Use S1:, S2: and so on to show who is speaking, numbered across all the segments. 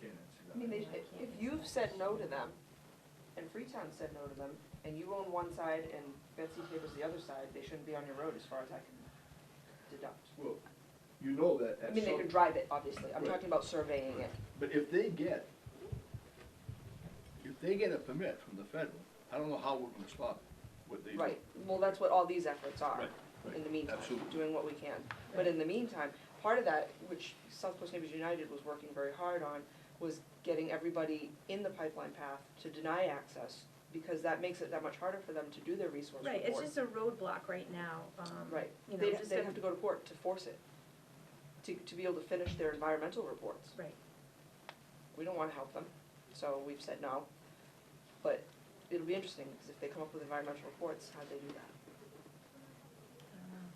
S1: can't answer that.
S2: I mean,
S3: I
S2: they, if-
S3: can't
S2: if
S3: answer
S2: you've
S3: that
S2: said no to
S3: question.
S2: them, and Freetown said no to them, and you own one side and Betsy Tabor's the other side, they shouldn't be on your road as far as I can deduct.
S1: Well, you know that
S2: I
S1: at
S2: mean, they
S1: some,
S2: could drive it, obviously, I'm
S1: Right.
S2: talking about surveying it.
S1: but if they get, if they get a permit from the federal, I don't know how we're gonna stop what they do.
S2: Right, well, that's what all these efforts are,
S1: Right, right,
S2: in the meantime,
S1: absolutely.
S2: doing what we can. But in the meantime, part of that, which South Coast Neighbors United was working very hard on, was getting everybody in the pipeline path to deny access, because that makes it that much harder for them to do their resource report.
S3: Right, it's just a roadblock right now, um,
S2: Right,
S3: you know,
S2: they'd,
S3: just
S2: they'd
S3: a-
S2: have to go to court to force it, to, to be able to finish their environmental reports.
S3: Right,
S2: We don't wanna help them, so we've said no. But it'll be interesting, because if they come up with environmental reports, how'd they do that?
S3: I don't know.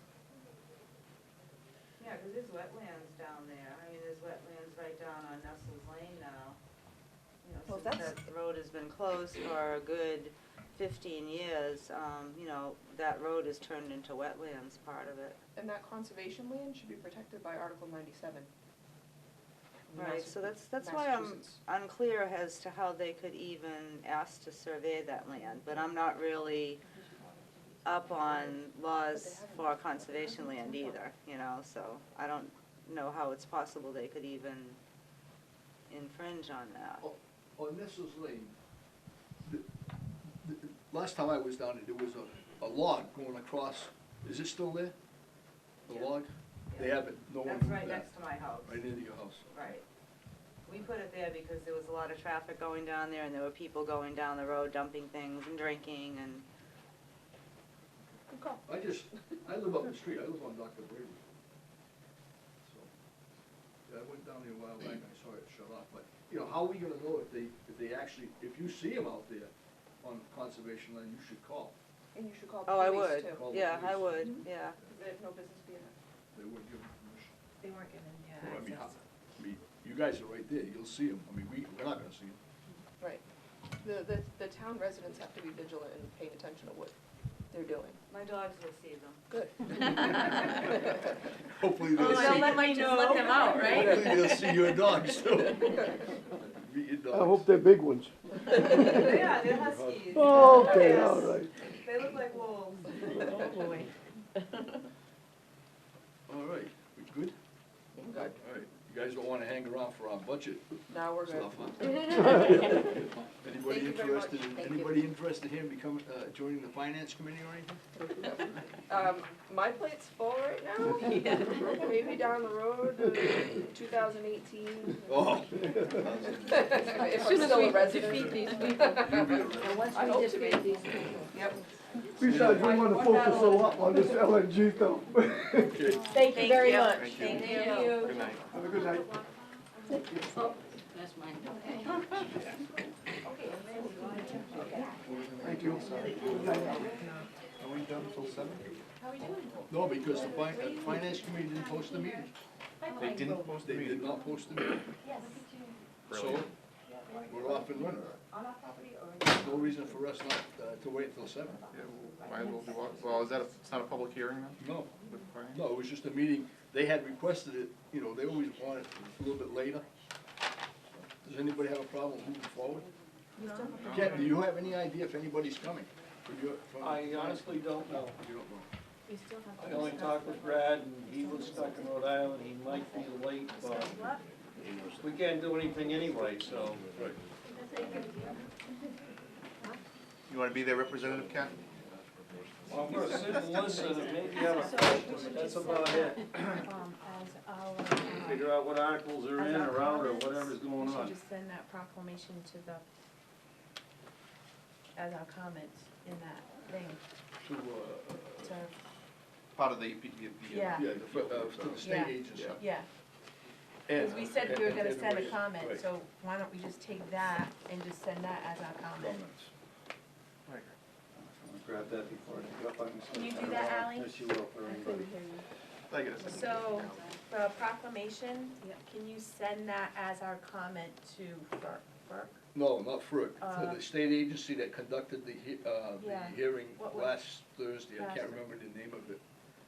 S4: Yeah, 'cause there's wetlands down there, I mean, there's wetlands right down on Nestle's Lane now. You know,
S2: Well,
S4: since
S2: that's-
S4: that road has been closed for a good fifteen years, um, you know, that road is turned into wetlands part of it.
S2: And that conservation land should be protected by Article ninety-seven.
S4: Right, so that's, that's why I'm
S2: Massachusetts.
S4: unclear as to how they could even ask to survey that land, but I'm not really up on laws for conservation land either, you know, so I don't know how it's possible they could even infringe on that.
S1: On- Oh, On Nestle's Lane, the, the, last time I was down there, there was a, a log going across, is it still there? The
S4: Yeah.
S1: log? They
S4: Yeah.
S1: haven't, no one
S4: That's
S1: moved
S4: right
S1: that,
S4: next to my house,
S1: right into your house.
S4: right. We put it there because there was a lot of traffic going down there and there were people going down the road dumping things and drinking and,
S2: Good call.
S1: I just, I live up the street, I live on Dr. Brady. So, yeah, I went down there a while back, and I saw it shut off, but, you know, how are we gonna know if they, if they actually, if you see them out there on conservation land, you should call.
S2: And you should call
S4: oh, I
S2: police
S4: would,
S2: too.
S1: Call the
S4: yeah, I
S1: police.
S4: would, yeah.
S2: Because they have no business being there.
S1: They wouldn't give them permission.
S3: They weren't given,
S1: Well, I mean,
S3: yeah,
S1: how-
S3: access.
S1: I mean, you guys are right there, you'll see them, I mean, we, we're not gonna see them.
S2: Right. The, the, the town residents have to be vigilant and paying attention to what they're doing.
S4: My dogs will see them.
S2: Good.
S1: Hopefully they'll
S3: Oh,
S1: see.
S3: they'll let me know. Just let them out, right?
S1: Hopefully they'll see your dogs too. Meet your dogs.
S5: I hope they're big ones.
S4: Yeah, they're huskies.
S1: Oh,
S5: Okay,
S4: Yes.
S5: all right.
S4: They look like wolves.
S3: Oh, boy.
S1: All right, we good?
S2: Good.
S1: All right, you guys don't wanna hang around for our budget
S2: Now we're good.
S1: stuff, huh? Anybody
S2: Thank you very much.
S1: interested, in-
S2: Thank you.
S1: anybody interested in becoming, uh, joining the finance committee or anything?
S2: Um, my plate's full right now. Maybe down the road, uh, two thousand eighteen.
S1: Oh.
S2: If I'm still a resident.
S1: You'll be all right.
S2: I hope to be. Yep.
S5: Besides, we want to focus a lot on this LNG though.
S1: Okay.
S3: Thank you very much.
S1: Thank you.
S3: you.
S1: Good night.
S5: Have a good night.
S1: Thank you. Are we done till seven? No, because the fin- uh, the finance committee didn't post the meeting.
S6: They didn't post the
S1: They did
S6: meeting.
S1: not post the meeting. So,
S6: Brilliant.
S1: we're off and running. No reason for us not, uh, to wait till seven.
S6: Yeah, well, Might as well do, all- well, is that, a- it's not a public hearing then?
S1: No,
S6: with Brian?
S1: no, it was just a meeting. They had requested it, you know, they always want it a little bit later. Does anybody have a problem moving forward? Ken, do you have any idea if anybody's coming? From your- from-
S7: I uh, honestly don't know.
S1: You don't know.
S7: I only talked with Brad and he was stuck in Rhode Island, he might be late, but we can't do anything anyway, so.
S6: You wanna be their representative, Ken?
S7: Well, I'm gonna sit and listen and maybe have a question, but that's about it.
S8: um, as our,
S7: Figure out what articles are in or out or whatever's going
S8: we should
S7: on.
S8: just send that proclamation to the, as our comments in that thing,
S1: To, uh,
S8: to,
S6: Part of the, EP the- the-
S8: Yeah.
S1: Yeah, the, fir- uh, to the state
S8: Yeah.
S1: agency.
S8: yeah. Because we said we were gonna send a comment, so why don't we just take that and just send that as our comment?
S7: Grab that before I up, i
S8: Can you do that, Ally?
S7: Yes, you will,
S8: I couldn't hear you.
S6: I guess.
S8: So, the proclamation, can you send that as our comment to FERC? FERC?
S1: No, not FERC, to
S8: Uh,
S1: the state agency that conducted the he, uh,
S8: Yeah.
S1: the hearing
S8: What was-
S1: last Thursday, I can't
S8: Last-
S1: remember the name of it.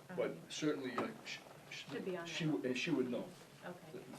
S8: Um,
S1: But certainly, uh, sh- sh-
S8: Should be on
S1: she,
S8: there.
S1: w- and she would know,
S8: Okay,